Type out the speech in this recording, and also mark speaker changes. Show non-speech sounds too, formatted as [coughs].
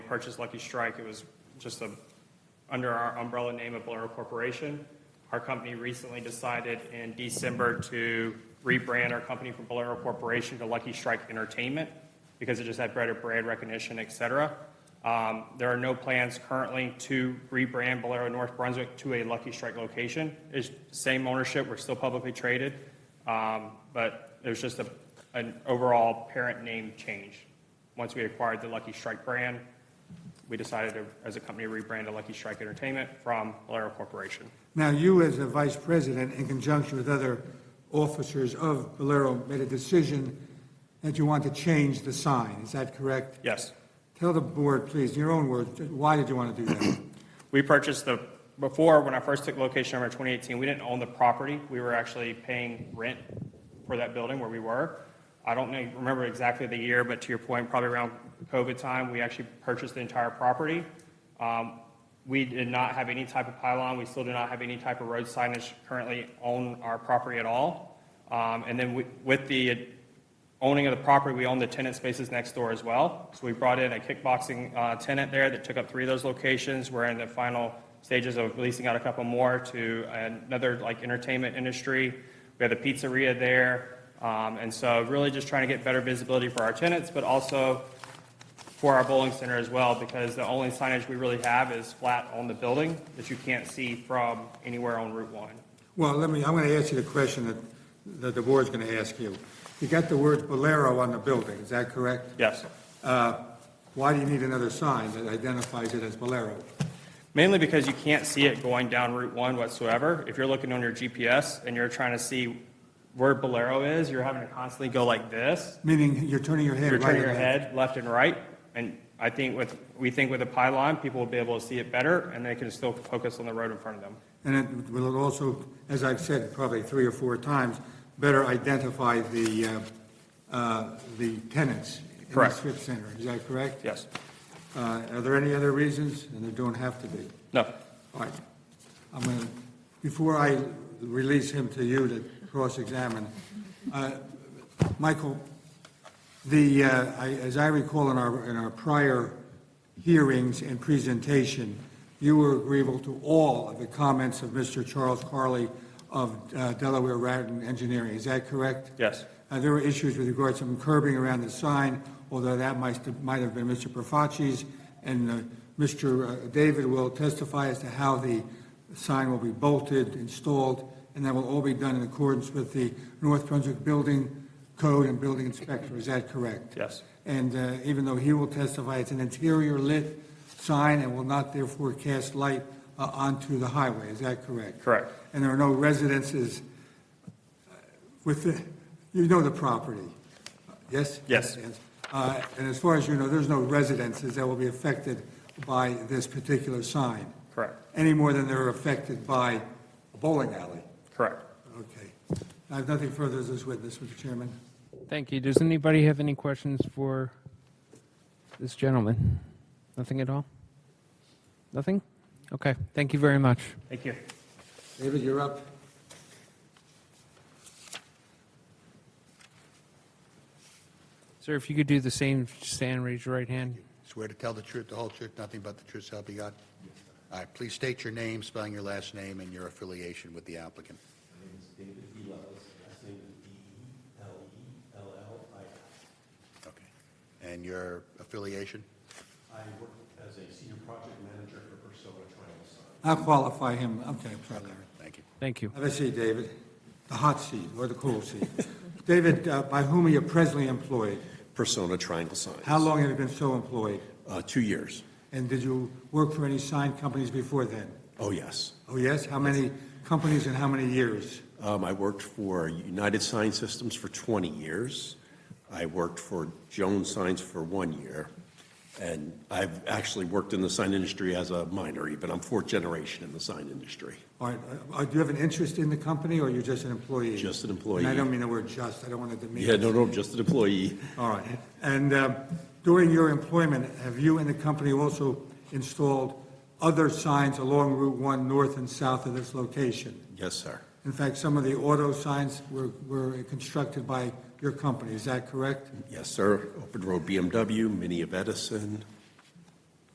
Speaker 1: purchased Lucky Strike, it was just a, under our umbrella name of Bolero Corporation. Our company recently decided in December to rebrand our company from Bolero Corporation to Lucky Strike Entertainment because it just had better brand recognition, et cetera. Um, There are no plans currently to rebrand Bolero North Brunswick to a Lucky Strike location. It's same ownership, we're still publicly traded, um, but there's just a, an overall parent name change. Once we acquired the Lucky Strike brand, we decided to, as a company, rebrand to Lucky Strike Entertainment from Bolero Corporation.
Speaker 2: Now, you as a vice president, in conjunction with other officers of Bolero, made a decision that you want to change the sign. Is that correct?
Speaker 1: Yes.
Speaker 2: Tell the board, please, in your own words, why did you want to do that? [coughs]
Speaker 1: We purchased the, before, when I first took location number in 2018, we didn't own the property. We were actually paying rent for that building where we were. I don't know, remember exactly the year, but to your point, probably around COVID time, we actually purchased the entire property. Um, We did not have any type of pylon. We still do not have any type of road signage currently on our property at all. Um, And then we- with the owning of the property, we own the tenant spaces next door as well. So we brought in a kickboxing uh, tenant there that took up three of those locations. We're in the final stages of leasing out a couple more to another like entertainment industry. We have a pizzeria there. Um, And so really just trying to get better visibility for our tenants, but also for our bowling center as well, because the only signage we really have is flat on the building that you can't see from anywhere on Route 1.
Speaker 2: Well, let me, I'm going to ask you the question that, that the board's going to ask you. You got the words Bolero on the building, is that correct?
Speaker 1: Yes.
Speaker 2: Uh, Why do you need another sign that identifies it as Bolero?
Speaker 1: Mainly because you can't see it going down Route 1 whatsoever. If you're looking on your GPS and you're trying to see where Bolero is, you're having to constantly go like this.
Speaker 2: Meaning you're turning your head
Speaker 1: You're
Speaker 2: right
Speaker 1: turning your
Speaker 2: and left.
Speaker 1: head left and right. And I think with, we think with a pylon, people will be able to see it better and they can still focus on the road in front of them.
Speaker 2: And it will also, as I've said probably three or four times, better identify the, uh, uh, the tenants in the
Speaker 1: Correct.
Speaker 2: strip center. Is that correct?
Speaker 1: Yes.
Speaker 2: Uh, Are there any other reasons? And there don't have to be.
Speaker 1: No.
Speaker 2: All right. I'm going to, before I release him to you to cross-examine, uh, Michael, the, uh, I- as I recall in our, in our prior hearings and presentation, you were agreeable to all of the comments of Mr. Charles Carley of uh, Delaware Raritan Engineering. Is that correct?
Speaker 1: Yes.
Speaker 2: Uh, There were issues with regards to some curbing around the sign, although that might, might have been Mr. Profaci's, and uh, Mr. uh, David will testify as to how the sign will be bolted, installed, and that will all be done in accordance with the North Brunswick Building Code and Building Inspector. Is that correct?
Speaker 1: Yes.
Speaker 2: And uh, even though he will testify, it's an interior lit sign and will not therefore cast light uh, onto the highway. Is that correct?
Speaker 1: Correct.
Speaker 2: And there are no residences with the, you know the property, yes?
Speaker 1: Yes.
Speaker 2: Uh, And as far as you know, there's no residences that will be affected by this particular sign,
Speaker 1: Correct.
Speaker 2: any more than they're affected by a bowling alley.
Speaker 1: Correct.
Speaker 2: Okay. I have nothing further as this witness, Mr. Chairman.
Speaker 3: Thank you. Does anybody have any questions for this gentleman? Nothing at all? Nothing? Okay, thank you very much.
Speaker 1: Thank you.
Speaker 2: David, you're up.
Speaker 3: Sir, if you could do the same, stand, raise your right hand.
Speaker 4: Swear to tell the truth, the whole truth, nothing but the truth, so help you God? All right, please state your name, spelling your last name, and your affiliation with the applicant.
Speaker 5: My name is David E. Lellis, last name is D-E-L-E-L-L-I-S.
Speaker 4: Okay. And your affiliation?
Speaker 5: I work as a senior project manager for Persona Triangle Sign.
Speaker 2: I'll qualify him, okay, I'm sorry, Larry.
Speaker 4: Thank you.
Speaker 3: Thank you.
Speaker 2: Have a seat, David. The hot seat or the cool seat. David, uh, by whom are you presently employed?
Speaker 6: Persona Triangle Signs.
Speaker 2: How long have you been so employed?
Speaker 6: Uh, two years.
Speaker 2: And did you work for any sign companies before then?
Speaker 6: Oh, yes.
Speaker 2: Oh, yes? How many companies and how many years?
Speaker 6: Um, I worked for United Sign Systems for 20 years. I worked for Jones Signs for one year. And I've actually worked in the sign industry as a minor even. I'm fourth generation in the sign industry.
Speaker 2: All right, uh, do you have an interest in the company, or you're just an employee?
Speaker 6: Just an employee.
Speaker 2: And I don't mean the word "just," I don't want to demean.
Speaker 6: Yeah, no, no, just an employee.
Speaker 2: All right, and uh, during your employment, have you and the company also installed other signs along Route 1, north and south of this location?
Speaker 6: Yes, sir.
Speaker 2: In fact, some of the auto signs were were constructed by your company, is that correct?
Speaker 6: Yes, sir. Open Road BMW, Mini of Edison,